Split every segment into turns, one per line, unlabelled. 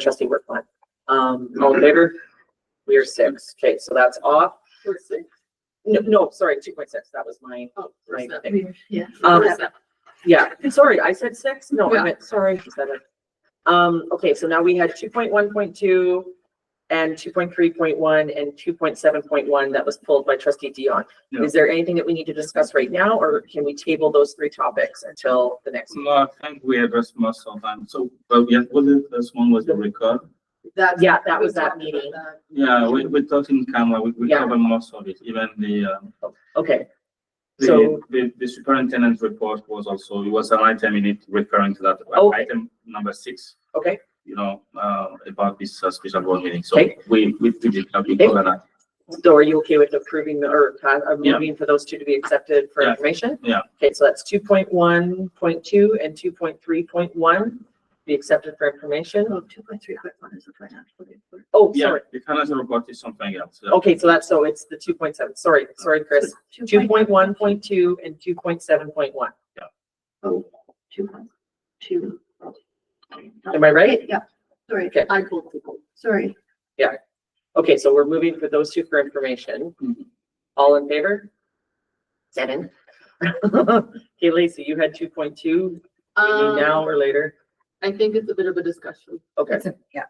trustee Whitmore. Um, all in favor? We are six. Okay, so that's off.
We're six.
No, no, sorry, two point six. That was mine.
Oh, we're
Right.
seven.
Yeah.
Um,
We're seven.
yeah, sorry, I said six. No, I meant, sorry, I said it. Um, okay, so now we had two point one point two and two point three point one and two point seven point one that was pulled by trustee Dion.
Yeah.
Is there anything that we need to discuss right now, or can we table those three topics until the next?
No, I think we addressed most of them. So, but we, well, the first one was the record.
That's-
Yeah, that
we
was that
talked about
meeting.
that.
Yeah, we, we talked in camera, we, we
Yeah.
covered most of it, even the, um,
Okay, So-
the, the, the superintendent's report was also, it was an item in it referring to that.
Okay.
Item number six,
Oh. okay,
you know, uh, about this uh, special board meeting. So
Okay.
we, we did, uh, we
Okay.
covered that.
so are you okay with approving the, or uh,
Yeah.
moving for those two to be accepted for
Yeah.
information?
Yeah,
Okay, so that's two point one, point two, and two point three, point one, be accepted for information.
Oh, two point three point one is the financial report.
Oh,
yeah,
sorry.
the financial report is something else. Yeah.
Okay, so that's, so it's the two point seven, sorry, sorry, Chris. Two point one, point two, and two point seven, point one.
Oh, two point two.
Am I right?
Yeah, sorry,
Okay,
I pulled people.
sorry.
okay, so we're moving for those two for information.
Mhm.
All in favor? Seven. Okay, Lacey, you had two point two,
Um,
now or later?
I think it's a bit of a discussion.
Okay,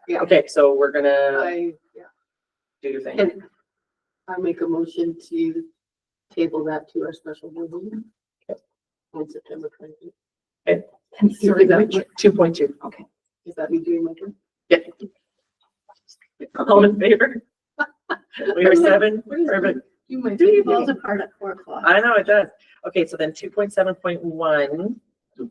Yeah.
okay, so we're gonna
I, yeah,
do your thing.
and I make a motion to table that to our special board meeting. On September twenty.
And
Sorry,
sorry, which,
Two point two.
Is that me doing my turn?
All in favor? We are seven,
What is-
perfect.
You might.
do you balls apart at four o'clock?
I know it does. Okay, so then two point seven point one,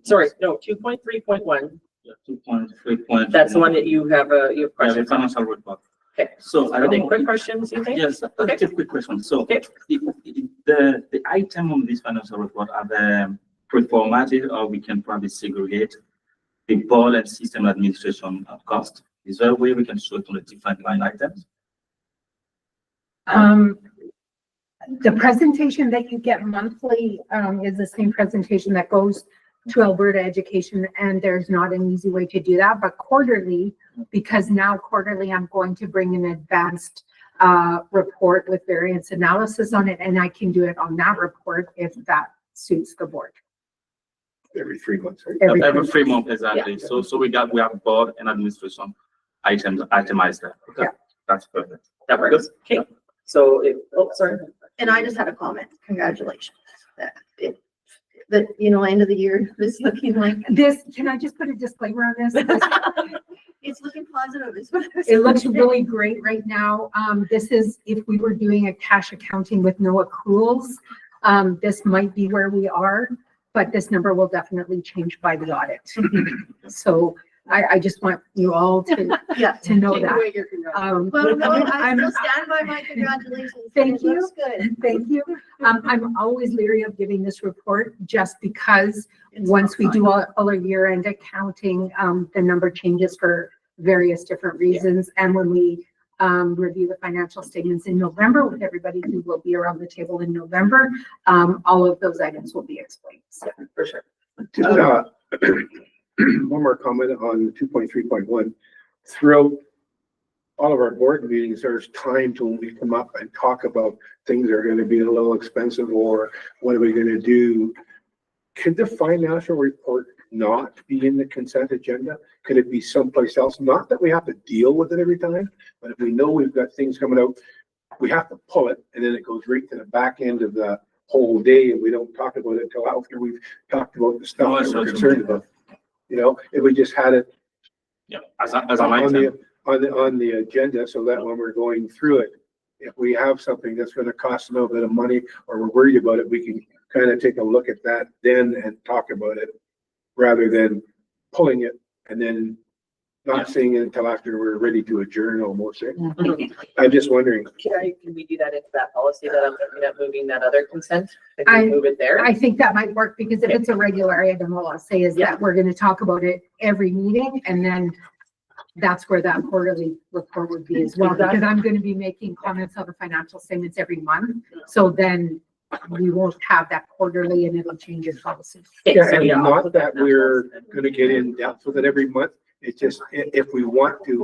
sorry, no, two point three point one,
Yeah, Two point, three point.
that's the one that you have, uh, you have
Yeah, the
questions on.
financial report.
Okay.
So I
Are
don't.
they
know-
quick questions, you think?
Yes, I have a quick question. So
Okay.
if- if the, the item on this financial report are the performative or we can probably segregate the ball and system administration uh, cost. Is there a way we can show it on the different line items?
Um, the presentation that you get monthly, um, is the same presentation that goes to Alberta Education, and there's not an easy way to do that, but quarterly, because now quarterly, I'm going to bring an advanced, uh, report with variance analysis on it, and I can do it on that report if that suits the board.
every three months, right?
Every-
Every three months, exactly. So, so we got, we have ball and administration items itemized there. Okay,
Yeah.
that's perfect.
That works. Okay, so, it- oh, sorry.
And I just had a comment, congratulations, that it, that, you know, end of the year, this is looking like,
This, can I just put a disclaimer on this? This
it's looking positive, is what I was.
It looks
saying.
really great right now. Um, this is, if we were doing a cash accounting with no accruals, um, this might be where we are, but this number will definitely change by the audit. So I, I just want you all to,
Mm-hmm. Yeah.
to know
Take
that.
away your congrats.
Um,
Well, no, I
I'm-
still stand by my congratulations.
Thank
It looks Good.
thank you. Um, I'm always leery of giving this report just because
It's
once we
fine.
do all, all our year-end accounting, um, the number changes for various different reasons. And when we, um, review the financial statements in November with everybody who will be around the table in November, um, all of those items will be explained. So
For sure.
Just, uh, one more comment on two point three point one. Throughout all of our board meetings, there's times when we come up and talk about things that are gonna be a little expensive or what are we gonna do? Could the financial report not be in the consent agenda? Could it be someplace else? Not that we have to deal with it every time, but if we know we've got things coming out, we have to pull it and then it goes right to the back end of the whole day and we don't talk about it until after we've talked about the
Oh,
stuff
that's
that we're
what you
concerned
mean.
about. You know, if we just had it
Yeah, as, a- as an
on
item.
the, on the, on the agenda, so that when we're going through it, if we have something that's gonna cost a little bit of money, or we're worried about it, we can kind of take a look at that then and talk about it, rather than pulling it and then
Yeah.
not seeing it until after we're ready to adjourn almost. eh? I'm just wondering,
Can I, can we do that into that policy that I'm looking at moving that other consent? If
I-
we move it there?
I think that might work because if it's a regular item, all I'll say is
Yeah.
that we're gonna talk about it every meeting and then that's where that quarterly report would be as well, because I'm gonna be making comments on the financial statements every month. So then we won't have that quarterly and it'll change your policy.
Okay,
Yeah,
so
and
I'll
not
put in
that we're
policy then.
gonna get in depth with it every month, it's just, i- if we want to,